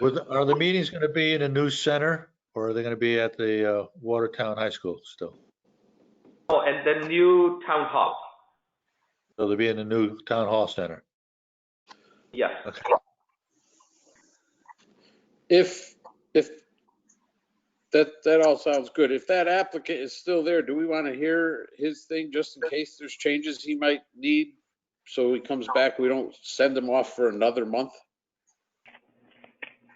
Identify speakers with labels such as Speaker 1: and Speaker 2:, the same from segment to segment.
Speaker 1: Was, are the meetings going to be in a new center or are they going to be at the uh, Watertown High School still?
Speaker 2: Oh, and the new town hall.
Speaker 1: So they'll be in the new town hall center.
Speaker 2: Yes.
Speaker 1: Okay.
Speaker 3: If, if, that, that all sounds good. If that applicant is still there, do we want to hear his thing just in case there's changes he might need? So he comes back, we don't send him off for another month?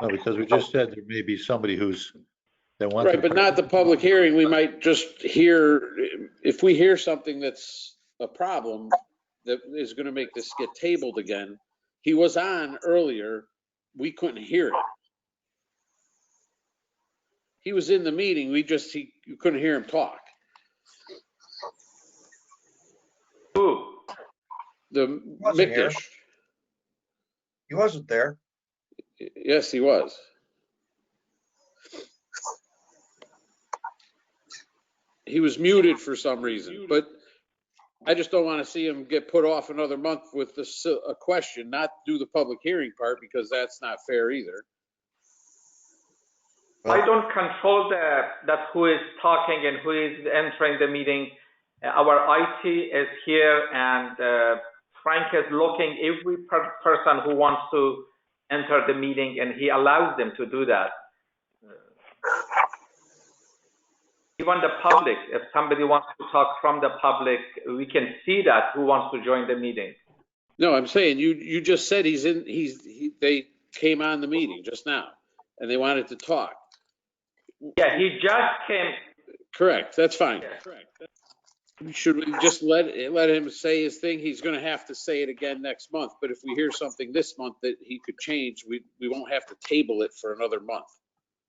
Speaker 1: No, because we just said there may be somebody who's, that wants.
Speaker 3: Right,
Speaker 1: to
Speaker 3: but not the public hearing. We might just hear, if we hear something that's a problem that is going to make this get tabled again. He was on earlier. We couldn't hear it. He was in the meeting. We just, he, you couldn't hear him talk.
Speaker 2: Who?
Speaker 3: The
Speaker 4: Wasn't here.
Speaker 3: Mickish.
Speaker 4: He wasn't there.
Speaker 3: Yes, he was. He was muted for some reason, but I just don't want to see him get put off another month with this, uh, a question, not do the public hearing part because that's not fair either.
Speaker 2: I don't control that, that who is talking and who is entering the meeting. Uh, Our IT is here and uh, Frank is looking every per- person who wants to enter the meeting and he allows them to do that. Uh, Even the public, if somebody wants to talk from the public, we can see that who wants to join the meeting.
Speaker 3: No, I'm saying you, you just said he's in, he's, he- they came on the meeting just now and they wanted to talk.
Speaker 2: Yeah, he just came,
Speaker 3: Correct, that's fine.
Speaker 2: Yeah.
Speaker 3: Should we just let, let him say his thing? He's gonna have to say it again next month, but if we hear something this month that he could change, we, we won't have to table it for another month.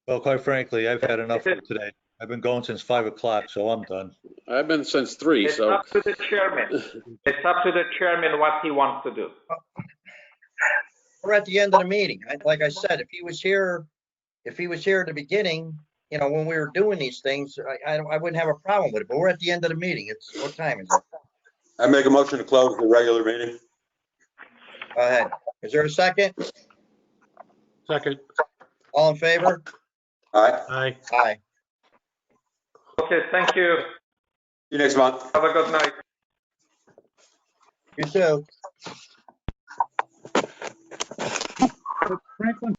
Speaker 1: Well, quite frankly, I've had enough for today. I've been going since five o'clock, so I'm done.
Speaker 3: I've been since three,
Speaker 2: it's
Speaker 3: so,
Speaker 2: up to the chairman. It's up to the chairman what he wants to do.
Speaker 4: We're at the end of the meeting. I- Like I said, if he was here, if he was here at the beginning, you know, when we were doing these things, I, I I wouldn't have a problem with it, but we're at the end of the meeting. It's, what time is it?
Speaker 5: I make a motion to close the regular meeting.
Speaker 4: Go ahead. Is there a second?
Speaker 6: Second,
Speaker 4: All in favor?
Speaker 5: All right,
Speaker 6: aye.
Speaker 4: Aye.
Speaker 2: Okay, thank you.
Speaker 5: see you next month.
Speaker 2: Have a good night.
Speaker 4: You too.
Speaker 6: Franklin